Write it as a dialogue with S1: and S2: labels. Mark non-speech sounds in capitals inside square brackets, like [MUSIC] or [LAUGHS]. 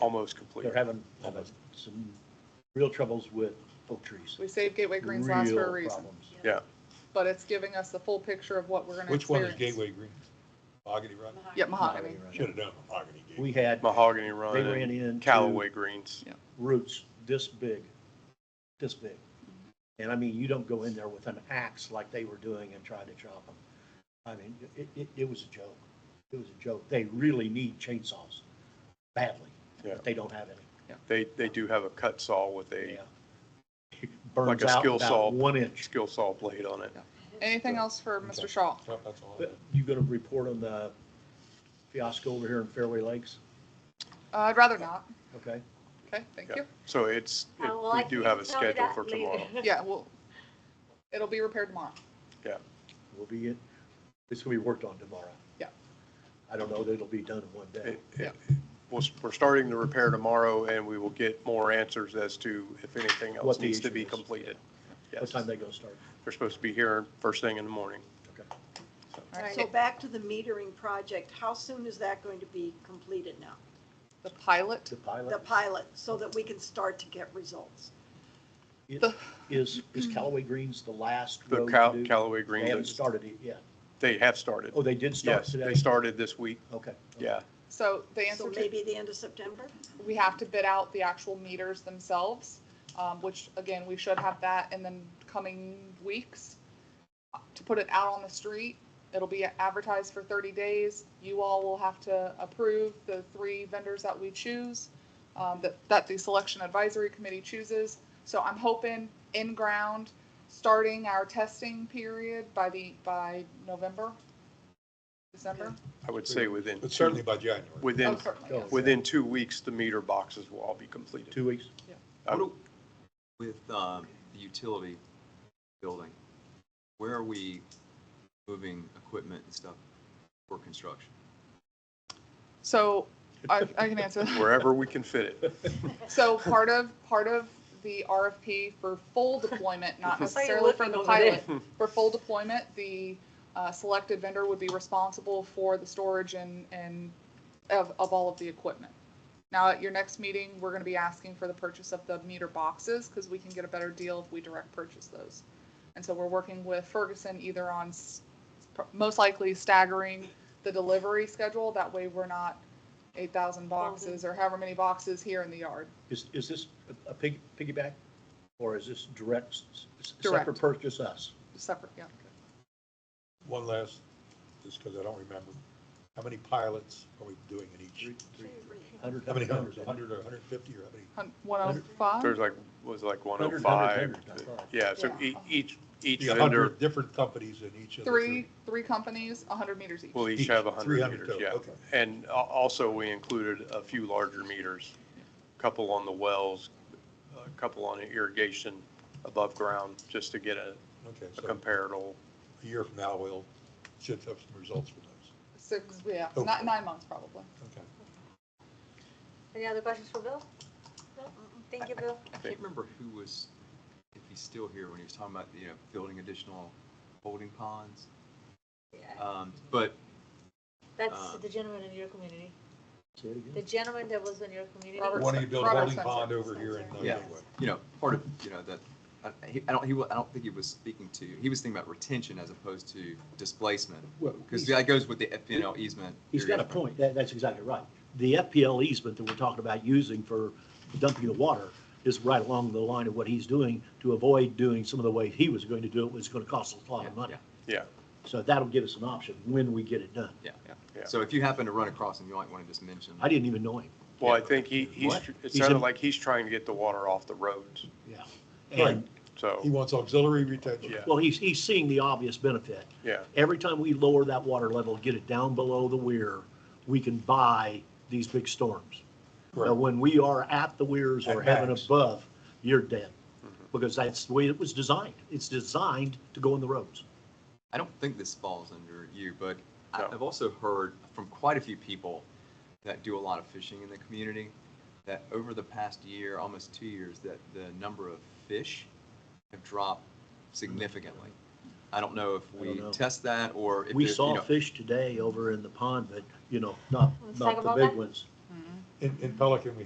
S1: almost complete.
S2: They're having, having some real troubles with oak trees.
S3: We saved Gateway Greens last for a
S2: Real
S3: reason,
S2: problems.
S3: but it's giving us the full picture of what we're gonna
S4: Which one
S3: experience.
S4: is Gateway
S5: Oh,
S4: Green? Mahogany Run?
S3: Yeah, mahogany.
S4: Should have done Mahogany Gateway.
S2: We had
S1: Mahogany Run
S2: They ran
S1: and
S2: into-
S1: Callaway Greens.
S2: roots this big, this big. And I mean, you don't go in there with an axe like they were doing and try to chop them. I mean, it, it, it was a joke. It was a joke. They really need chainsaws badly,
S1: Yeah.
S2: but they don't have any.
S1: They, they do have a cut saw with a
S2: Yeah. Burns
S1: a
S2: out
S1: skill saw.
S2: about one inch.
S1: skill saw blade on it.
S3: Anything else for Mr. Shaw?
S4: Well, That's all. I
S2: But
S4: have.
S2: You gonna report on the fiasco over here in Fairway Lakes?
S3: Uh, I'd rather not.
S2: Okay?
S3: Okay, thank
S1: Yeah.
S3: you.
S1: So it's, it-
S5: Oh, well,
S1: we
S5: I
S1: do
S5: can
S1: have a
S5: tell you
S1: schedule
S5: that
S1: for
S5: later. [LAUGHS]
S1: tomorrow.
S3: Yeah, well, it'll be repaired tomorrow.
S2: We'll be, in- it's gonna be worked on tomorrow.
S3: Yeah.
S2: I don't know that it'll be done in one day.
S1: It- it- We'll, s- we're starting the repair tomorrow and we will get more answers as to if anything else
S2: What the
S1: needs to
S2: issue
S1: be
S2: is.
S1: completed.
S2: What
S1: Yes,
S2: time they gonna start?
S1: they're supposed to be here first thing in the morning.
S2: Okay.
S3: All right,
S6: So back to the metering project, how soon is that going to be completed now?
S3: the pilot,
S2: The pilot?
S6: The pilot, so that we can start to get results?
S2: It-
S3: The-
S2: Is, is Callaway Greens the last
S1: The
S2: road
S1: Cal-
S2: to do?
S1: Callaway
S2: They haven't
S1: Greens,
S2: started it yet.
S1: they have started.
S2: Oh, they did start
S1: Yes,
S2: today?
S1: they started this week.
S2: Okay.
S1: Yeah,
S3: so the
S6: So
S3: answer to,
S6: maybe the end of September?
S3: we have to bid out the actual meters themselves, um, which again, we should have that in the coming weeks. To put it out on the street, it'll be advertised for thirty days. You all will have to approve the three vendors that we choose, um, that, that the selection advisory committee chooses. So I'm hoping in ground, starting our testing period by the, by November, December.
S1: I would say within,
S4: But
S1: two-
S4: certainly by January.
S3: Oh,
S1: within,
S3: certainly,
S2: go.
S3: yes.
S1: within two weeks, the meter boxes will all be completed. Um,
S2: Two weeks?
S1: I-
S7: What do- With um, the utility building, where are we moving equipment and stuff for construction?
S3: So I, I can answer that.
S1: Wherever we can fit it.
S3: So part of, part of the RFP for full deployment, not
S5: [LAUGHS] I saw you
S3: necessarily for
S5: looking
S3: the
S5: over there.
S3: pilot, for full deployment, the uh, selected vendor would be responsible for the storage and, and of, of all of the equipment. Now, at your next meeting, we're gonna be asking for the purchase of the meter boxes, because we can get a better deal if we direct purchase those. And so we're working with Ferguson either on, s- most likely staggering the delivery schedule, that way we're not eight thousand boxes or however many boxes here in the yard.
S2: Is, is this a- a pig, piggyback? Or is this direct, s- s-
S3: Direct.
S2: separate purchase us?
S3: Separate, yeah.
S4: One last, just because I don't remember, how many pilots are we doing in each?
S2: Hundred,
S4: How many
S2: hundred,
S4: hundreds,
S2: hundred.
S4: hundred or hundred and fifty, or how many?
S3: Hun- 105?
S1: There's like, was like one oh
S2: Hundred,
S1: five.
S2: hundred, hundred, I thought.
S1: Yeah, so
S3: Yeah.
S1: e- each, each
S4: Yeah,
S1: vendor
S4: 100 different companies in each of the
S3: Three, three companies, 100 meters each.
S1: will each
S4: Each,
S1: have a hundred
S4: 300
S1: meters,
S4: total,
S1: yeah.
S4: okay.
S1: And al- also, we included a few larger meters, a couple on the wells, a couple on irrigation above ground, just to get a,
S4: Okay,
S1: a
S4: so
S1: comparable.
S4: a year from now, we'll, should have some results for those.
S3: Six, yeah,
S4: Oh.
S3: not nine months probably.
S4: Okay.
S5: Any other questions for Bill? No? Thank you, Bill.
S7: I can't remember who was, if he's still here, when he was talking about, you know, building additional holding ponds.
S5: Yeah.
S7: Um, But
S5: That's
S7: Um,
S5: the gentleman in your community.
S2: Say it again.
S5: The gentleman that was in your community.
S3: Robert-
S4: Why don't you build a
S3: Robert
S4: holding
S3: Spencer.
S4: pond over here in uh,
S7: Yeah.
S4: Gateway?
S7: you know, part of, you know, that, I- he- I don't, he, wa- I don't think he was speaking to, he was thinking about retention as opposed to displacement.
S2: Well,
S7: Because
S2: he's-
S7: that goes with the FPNL easement.
S2: He's got a
S7: area.
S2: point. That, that's exactly right. The FPL easement that we're talking about using for dumping the water is right along the line of what he's doing to avoid doing some of the way he was going to do it, was gonna cost us a lot
S7: Yeah,
S2: of money.
S7: yeah.
S1: Yeah,
S2: So that'll give us an option when we get it done.
S1: Yeah.
S7: So if you happen to run across him, you might want to just mention.
S2: I didn't even know him,
S1: well, I think he, he's,
S2: What?
S1: it
S2: He's
S1: sounded
S2: in-
S1: like he's trying to get the water off the roads,
S2: yeah.
S4: Right.
S2: And,
S4: He
S1: so,
S4: wants auxiliary retention.
S1: Yeah.
S2: well, he's, he's seeing the obvious benefit.
S1: yeah.
S2: Every time we lower that water level, get it down below the weir, we can buy these big storms. Now,
S4: Correct.
S2: when we are at the weirs or
S4: At
S2: heaven
S4: max.
S2: above, you're dead. Because that's the way it was designed. It's designed to go in the roads.
S7: I don't think this falls under you, but
S1: No.
S7: I- I've also heard from quite a few people that do a lot of fishing in the community, that over the past year, almost two years, that the number of fish have dropped significantly. I don't know if
S2: don't
S7: we
S2: know.
S7: test that or if.
S2: We
S7: there's, you
S2: saw
S7: know-
S2: fish today over in the pond, but, you know, not,
S5: Let's talk
S2: not the
S5: about
S2: big
S5: that.
S2: ones.
S4: In, in Pelican, we